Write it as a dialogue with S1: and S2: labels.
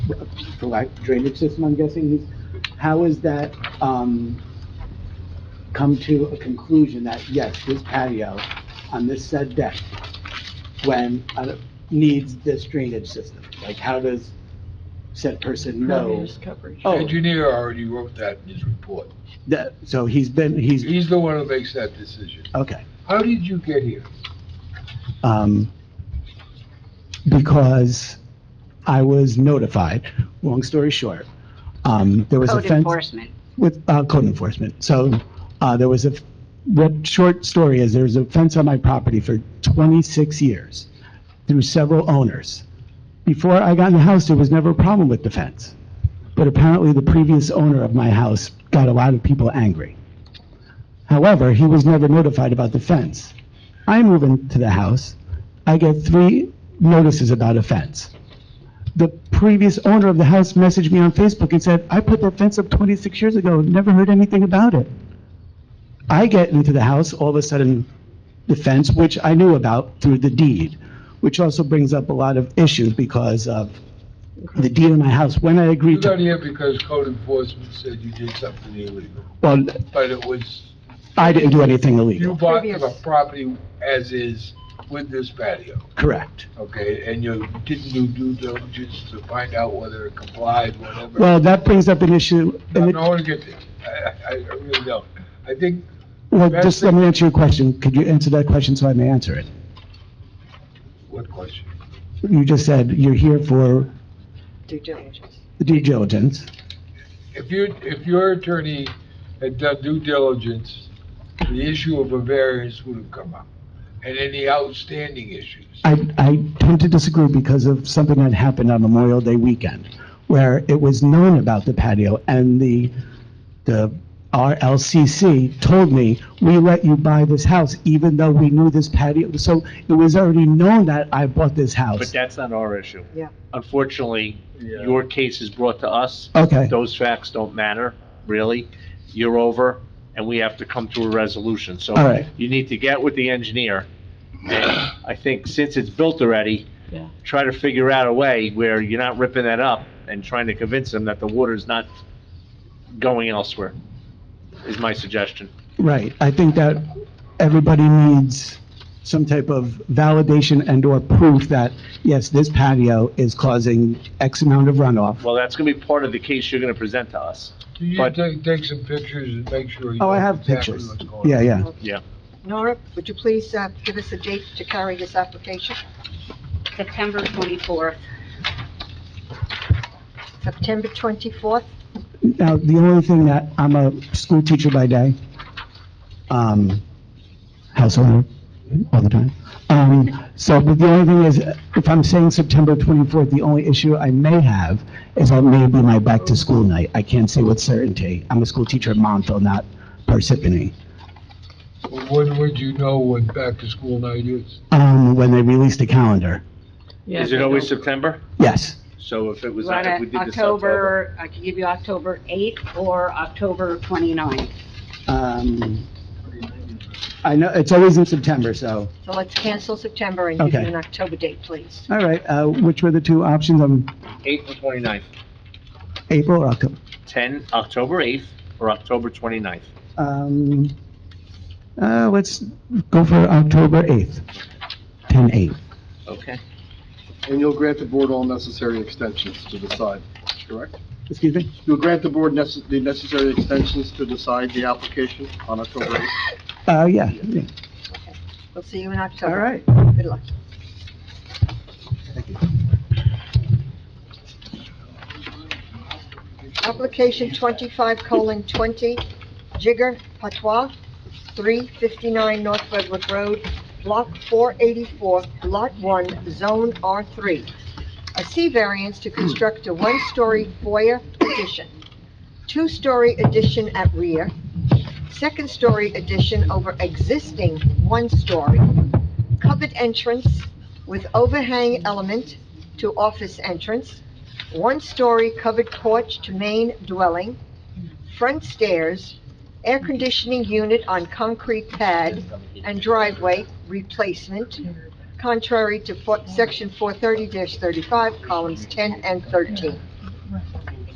S1: for lack drainage system, I'm guessing, is, how is that, um, come to a conclusion that, yes, this patio on this said deck, when, uh, needs this drainage system? Like, how does said person know?
S2: Impervious coverage.
S1: Oh.
S3: Engineer already wrote that in his report.
S1: That, so he's been, he's,
S3: He's the one who makes that decision.
S1: okay.
S3: How did you get here?
S1: um, because I was notified. Long story short, um, there was a
S4: Code
S1: fence
S4: enforcement.
S1: with uh, code enforcement. So uh, there was a f- what short story is there was a fence on my property for 26 years through several owners. Before I got in the house, there was never a problem with the fence, but apparently the previous owner of my house got a lot of people angry. However, he was never notified about the fence. I move into the house, I get three notices about a fence. The previous owner of the house messaged me on Facebook and said, "I put that fence up 26 years ago, never heard anything about it." I get into the house, all of a sudden, the fence, which I knew about through the deed, which also brings up a lot of issues because of the deed in my house, when I
S3: You
S1: agreed
S3: got
S1: to,
S3: here because code enforcement said you did something illegal,
S1: well,
S3: but it was,
S1: I didn't do anything
S3: you
S1: illegal,
S3: bought the
S2: Previous.
S3: property as is with this patio,
S1: correct.
S3: okay? And you didn't do due diligence to find out whether it complied, whatever.
S1: Well, that brings up an issue,
S3: No,
S1: and
S3: I
S1: it-
S3: don't want to get there. I, I, I really don't. I think,
S1: well,
S3: That's
S1: just
S3: the-
S1: let me answer your question, could you answer that question so I may answer it?
S3: what question?
S1: You just said you're here for
S2: Due diligence.
S1: the due diligence,
S3: If you, if your attorney had done due diligence, the issue of a variance would have come up, and any outstanding issues.
S1: I, I tend to disagree because of something that happened on Memorial Day weekend, where it was known about the patio, and the, the RLCC told me, we let you buy this house, even though we knew this patio, so it was already known that I bought this
S5: But
S1: house.
S5: that's not our issue.
S2: Yeah.
S5: Unfortunately, your case is brought to us.
S1: Okay,
S5: Those facts don't matter, really. You're over, and we have to come to a resolution. So
S1: All right.
S5: you need to get with the engineer. And I think since it's built already,
S2: Yeah.
S5: try to figure out a way where you're not ripping that up and trying to convince them that the water's not going elsewhere, is my suggestion.
S1: right, I think that everybody needs some type of validation and/or proof that, yes, this patio is causing X amount of runoff.
S5: Well, that's gonna be part of the case you're gonna present to us.
S3: Do you
S5: But-
S3: take, take some pictures and make sure? you
S1: Oh, I
S3: know
S1: have
S3: exactly
S1: pictures,
S3: what's going
S1: yeah,
S3: on?
S1: yeah.
S2: Nora, would you please uh, give us a date to carry this application?
S4: September 24th.
S2: September 24th?
S1: Now, the only thing that, I'm a school teacher by day, um, house owner all the time. Um, so, but the only thing is, if I'm saying September 24th, the only issue I may have is that may be my back-to-school night. I can't say with certainty. I'm a school teacher at Montville, not Parsippany.
S3: Well, When would you know when back-to-school night is?
S1: Um, when they release the calendar,
S5: Is it always September?
S1: yes.
S5: So if it was,
S4: We're
S5: if we
S4: at
S5: did this October.
S4: October, I could give you October 8th or October 29th.
S1: Um, I know, it's always in September, so,
S2: So let's cancel September and give you
S1: Okay.
S2: an October date, please.
S1: all right, uh, which were the two options, um,
S5: April 29th,
S1: April or October?
S5: 10, October 8th or October 29th.
S1: Um, uh, let's go for October 8th, 10/8.
S5: Okay.
S6: And you'll grant the board all necessary extensions to decide, correct?
S1: Excuse me?
S6: You'll grant the board necess- the necessary extensions to decide the application on October 8th?
S1: Uh, yeah, yeah.
S2: We'll see you in October.
S1: all right.
S2: Good luck. Application twenty-five colon twenty, Jigger Patois, three fifty-nine North Redwood Road, block four eighty-four, lot one, zone R three. A C variance to construct a one-story foyer addition, two-story addition at rear, second-story addition over existing one-story, covered entrance with overhang element to office entrance, one-story covered porch to main dwelling, front stairs, air conditioning unit on concrete pad, and driveway replacement, contrary to fo- section four thirty thirty-five, columns ten and thirteen.